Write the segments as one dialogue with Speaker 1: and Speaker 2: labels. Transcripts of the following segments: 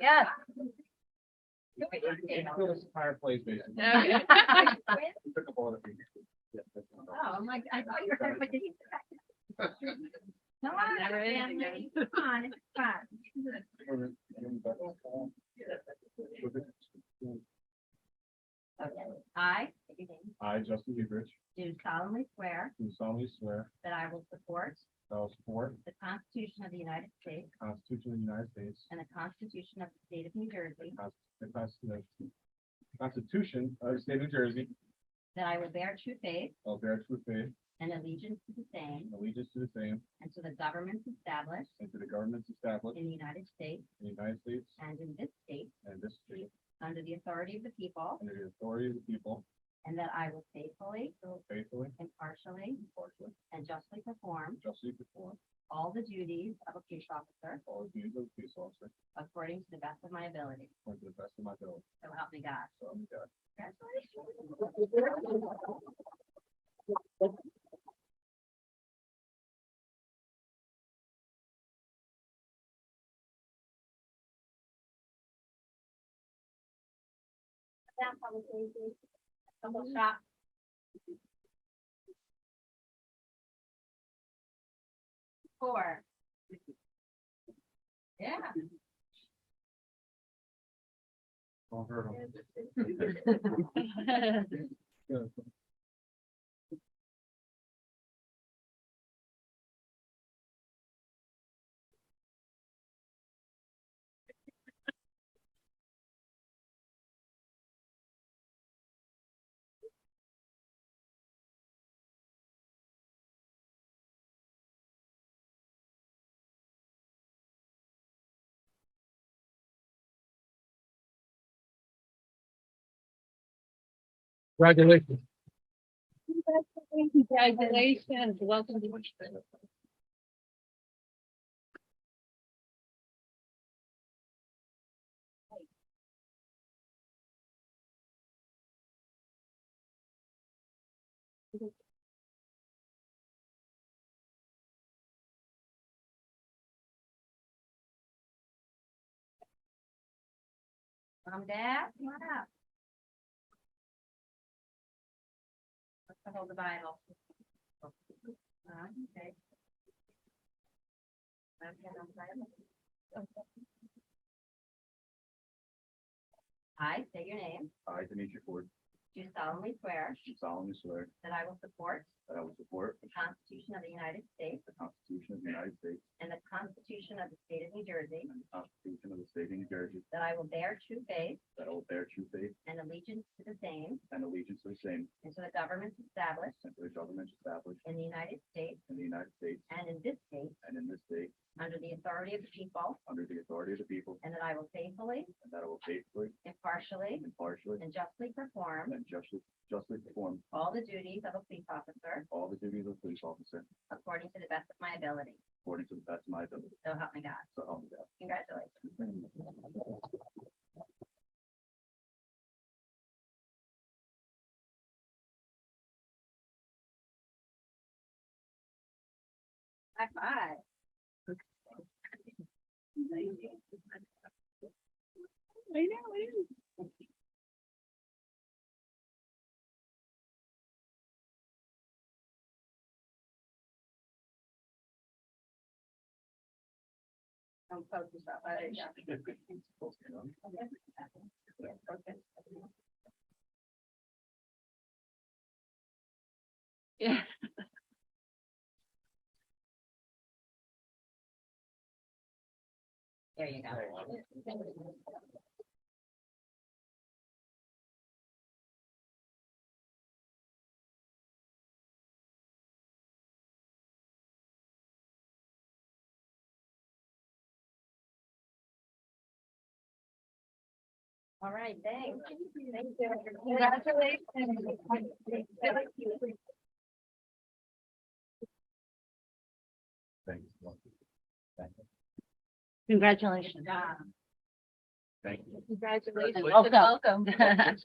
Speaker 1: Yes.
Speaker 2: It feels fireplace basically.
Speaker 1: Okay.
Speaker 2: It took up a lot of people. Yeah, that's not bad.
Speaker 1: Oh, I'm like, I thought you were gonna put these back. No, I
Speaker 3: Never
Speaker 1: understand,
Speaker 3: ending.
Speaker 1: honey. It's fine, it's fine.
Speaker 2: Or- and back up, uh, with it.
Speaker 1: I
Speaker 2: I, Justin Goodrich,
Speaker 1: do solemnly swear
Speaker 2: do solemnly swear
Speaker 1: that I will support
Speaker 2: that I will support
Speaker 1: the Constitution of the United States
Speaker 2: the Constitution of the United States,
Speaker 1: and the Constitution of the State of New Jersey,
Speaker 2: the Constitution the Constitution of the State of New Jersey,
Speaker 1: that I will bear true faith
Speaker 2: I'll bear true faith
Speaker 1: and allegiance to the same
Speaker 2: and allegiance to the same
Speaker 1: and to the governments established
Speaker 2: and to the governments established
Speaker 1: in the United States
Speaker 2: in the United States
Speaker 1: and in this state
Speaker 2: and this state
Speaker 1: under the authority of the people,
Speaker 2: under the authority of the people,
Speaker 1: and that I will faithfully,
Speaker 2: faithfully,
Speaker 1: impartially,
Speaker 2: impartially,
Speaker 1: and justly perform
Speaker 2: justly perform
Speaker 1: all the duties of a police officer
Speaker 2: all the duties of a police officer
Speaker 1: according to the best of my ability.
Speaker 2: according to the best of my ability.
Speaker 1: So help me God.
Speaker 2: So, yeah.
Speaker 1: Double shot. Four. Yeah.
Speaker 2: Don't hurt 'em. Good.
Speaker 4: Congratulations.
Speaker 3: Congratulations, welcome to.
Speaker 1: Mom, Dad, come on up. Let's go hold the Bible. Uh, okay. Okay, hold the Bible. I say your name,
Speaker 5: I, Demetri Ford,
Speaker 1: do solemnly swear
Speaker 5: do solemnly swear
Speaker 1: that I will support
Speaker 5: that I will support
Speaker 1: the Constitution of the United States
Speaker 5: the Constitution of the United States
Speaker 1: and the Constitution of the State of New Jersey,
Speaker 5: and the Constitution of the State of New Jersey,
Speaker 1: that I will bear true faith
Speaker 5: that I will bear true faith
Speaker 1: and allegiance to the same
Speaker 5: and allegiance to the same
Speaker 1: and to the governments established
Speaker 5: and to the governments established
Speaker 1: in the United States
Speaker 5: in the United States
Speaker 1: and in this state
Speaker 5: and in this state
Speaker 1: under the authority of the people,
Speaker 5: under the authority of the people,
Speaker 1: and that I will faithfully,
Speaker 5: and that I will faithfully,
Speaker 1: impartially,
Speaker 5: impartially,
Speaker 1: and justly perform
Speaker 5: and justly, justly perform
Speaker 1: all the duties of a police officer
Speaker 5: all the duties of police officer
Speaker 1: according to the best of my ability.
Speaker 5: according to the best of my ability.
Speaker 1: So help me God.
Speaker 5: So help me God.
Speaker 1: Congratulations. High five.
Speaker 3: I know, it is.
Speaker 1: Don't poke yourself. Oh, there you go.
Speaker 3: Yeah.
Speaker 1: There you go. All right, thanks. Thank you. Congratulations.
Speaker 5: Thank you. Thank you.
Speaker 1: Good
Speaker 3: Congratulations.
Speaker 1: job.
Speaker 5: Thank you.
Speaker 3: Congratulations.
Speaker 4: Welcome.
Speaker 3: Welcome.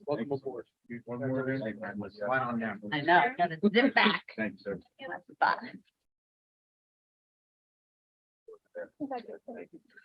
Speaker 4: Welcome aboard.
Speaker 5: One more. Right on down.
Speaker 3: I know, gotta zip back.
Speaker 5: Thank you, sir.
Speaker 3: Bye.
Speaker 5: Thank you.